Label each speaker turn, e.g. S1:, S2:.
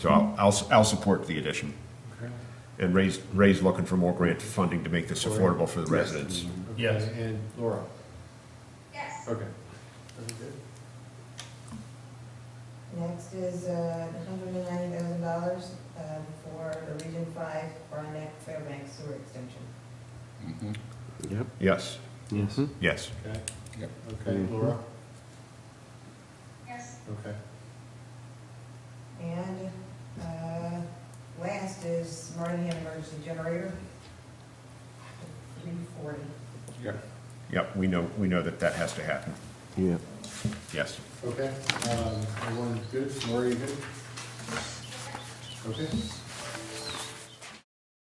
S1: So I'll, I'll, I'll support the addition. And Ray's, Ray's looking for more grant funding to make this affordable for the residents.
S2: Okay,
S3: Yes.
S2: And Laura?
S4: Yes.
S2: Okay. Very good.
S5: Next is hundred and ninety thousand dollars for the Region Five Barnett Fairbanks Sewer Extension.
S6: Yep.
S1: Yes,
S3: Yes.
S1: yes.
S2: Okay.
S6: Yep.
S2: Okay,
S3: Mhm.
S2: Laura?
S4: Yes.
S2: Okay.
S5: And uh, last is Meridian Emergency Generator, three forty.
S2: Yeah.
S1: Yep, we know, we know that that has to happen.
S6: Yep.
S1: Yes.
S2: Okay, um, everyone's good? Laura, you good? Okay.